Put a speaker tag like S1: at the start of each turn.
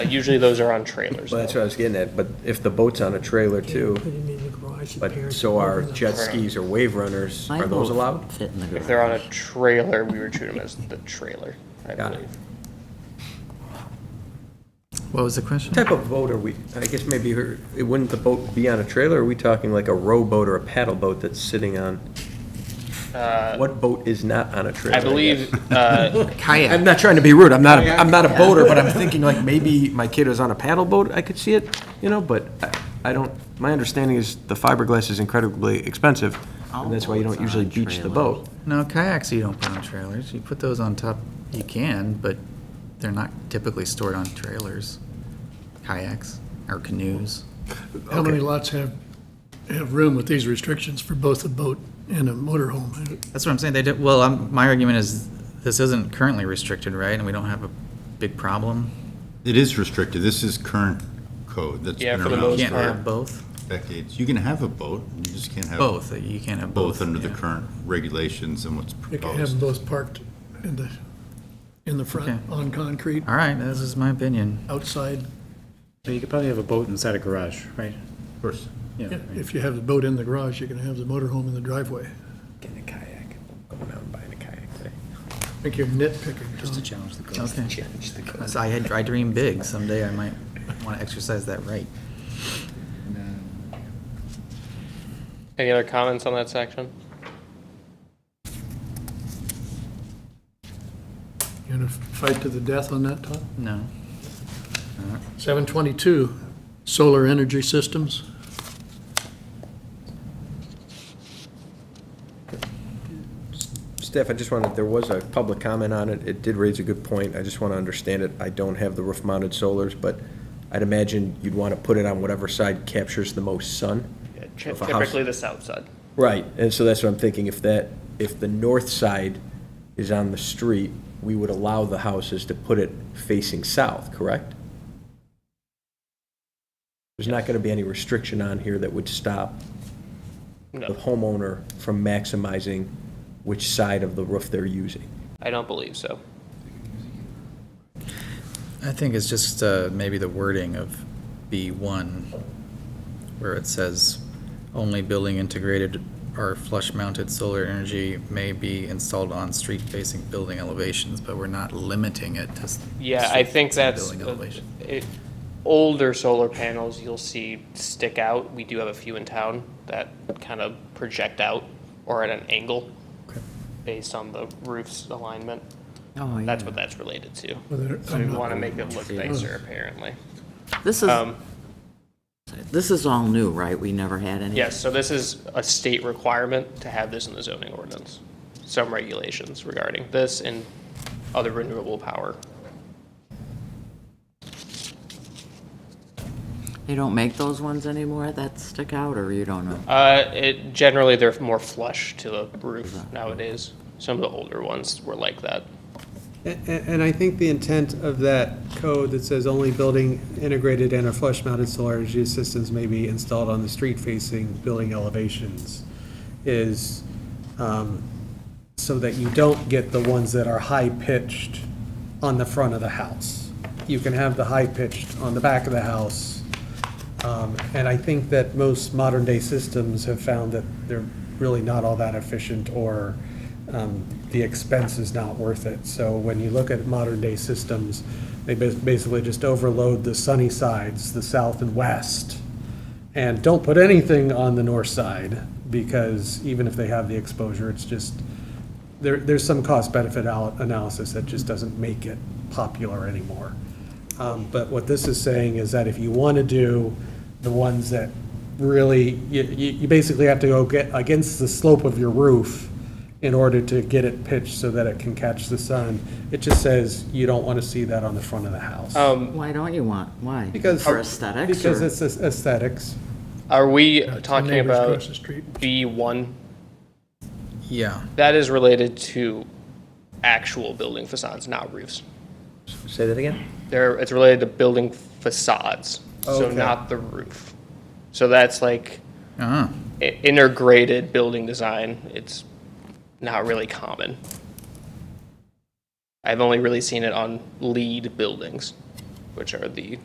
S1: usually those are on trailers.
S2: Well, that's what I was getting at, but if the boat's on a trailer too,
S3: Put him in the garage, the
S2: but
S3: parents
S2: so are
S3: open up.
S2: jet skis or wave runners,
S4: My
S2: are those
S4: boat
S2: allowed?
S4: Fit in the garage.
S1: If they're on a trailer, we would treat them as the trailer, I
S2: Got it.
S1: believe.
S4: What was the question?
S2: What type of boat are we, I guess maybe, you heard- it- wouldn't the boat be on a trailer? Are we talking like a rowboat or a paddle boat that's sitting on? What boat is not on a trailer?
S1: Uh, I
S2: guess?
S1: believe, uh,
S2: I'm
S4: Oh, Kayak.
S2: not trying to be rude, I'm not, a- I'm not a boater, but I'm thinking like maybe my kid was on a paddle boat, I could see it, you know, but I- I don't, my understanding is the fiberglass is incredibly expensive, and that's why you don't
S4: All
S2: usually
S4: boats are on
S2: beach the
S4: trailers.
S2: boat.
S5: No, kayaks you don't put on trailers. You put those on top, you can, but they're not typically stored on trailers. Kayaks or canoes.
S3: How many lots have, have room with these restrictions for both a boat and a motorhome?
S5: That's what I'm saying. They do, well, I'm, my argument is this isn't currently restricted, right? And we don't have a big problem.
S6: It is restricted. This is current code that's
S1: Yeah,
S6: been
S1: for the
S5: You
S1: most
S6: around
S5: can't
S6: for
S5: have both.
S6: decades. You can have a boat, you just can't have.
S5: Both. You can't have both.
S6: Both under the
S5: yeah.
S6: current regulations and what's
S3: They can have them
S6: proposed.
S3: both parked in the, in the front,
S5: Okay.
S3: on concrete,
S5: All right, this is my opinion.
S3: outside,
S7: So you could probably have a boat inside a garage, right?
S6: Of course.
S7: Yeah.
S3: Yeah, If you have the boat in the garage, you can have the motorhome in the driveway.
S2: Getting a kayak, going out and buying a kayak today.
S3: I think you're nitpicking, Tom.
S7: challenge the code.
S5: Okay. So I had, I dream big. Someday I might want to exercise that right.
S1: any other comments on that section?
S3: You gonna fight to the death on that, Tom?
S5: No.
S3: Seven twenty-two, solar energy systems.
S2: Steph, I just wanted, there was a public comment on it. It did raise a good point. I just want to understand it. I don't have the roof-mounted solars, but I'd imagine you'd want to put it on whatever side captures the most sun. So if a house-
S1: Typically the south side.
S2: Right, and so that's what I'm thinking. If that, if the north side is on the street, we would allow the houses to put it facing south, correct? There's not going to be any restriction on here that would stop
S1: No.
S2: the homeowner from maximizing which side of the roof they're using.
S1: I don't believe so.
S5: I think it's just uh, maybe the wording of B1, where it says, "Only building integrated or flush-mounted solar energy may be installed on street-facing building elevations," but we're not limiting it to. s-
S1: Yeah, I think
S5: street-facing
S1: that's,
S5: Building elevation.
S1: it, older solar panels you'll see stick out. We do have a few in town that kind of project out or at an angle based on the roof's alignment.
S4: Oh, yeah.
S1: That's what that's related to.
S3: Whether-
S1: So we want to make it look nicer, apparently.
S4: This is,
S1: Um,
S4: this is all new, right? We never had any?
S1: Yes, so this is a state requirement to have this in the zoning ordinance. Some regulations regarding this and other renewable power.
S4: They don't make those ones anymore that stick out, or you don't know?
S1: Uh, it, generally, they're more flush to the roof nowadays. Some of the older ones were like that.
S8: A- a- And I think the intent of that code that says only building integrated and or flush-mounted solar energy systems may be installed on the street-facing building elevations is um, so that you don't get the ones that are high-pitched on the front of the house. You can have the high-pitched on the back of the house. Um, And I think that most modern-day systems have found that they're really not all that efficient, or um, the expense is not worth it. So when you look at modern-day systems, they bas- basically just overload the sunny sides, the south and west, and don't put anything on the north side, because even if they have the exposure, it's just, there, there's some cost-benefit al- analysis that just doesn't make it popular anymore. Um, But what this is saying is that if you want to do the ones that really, you, you you basically have to go get against the slope of your roof in order to get it pitched so that it can catch the sun. It just says you don't want to see that on the front of the house.
S1: Um,
S4: Why don't you want, why?
S8: Because-
S4: For aesthetics?
S8: Because
S4: or-
S8: it's aesthetics.
S1: Are we
S3: Yeah, ten
S1: talking
S3: neighbors
S1: about
S3: across the street.
S1: B1?
S5: Yeah,
S1: That is related to actual building facades, not roofs.
S2: Say that again?
S1: There, it's related to building facades,
S3: Oh,
S1: so
S8: Okay.
S1: not the roof. So that's like
S5: uh-huh.
S1: i- integrated building design. It's not really common. I've only really seen it on lead buildings, which are the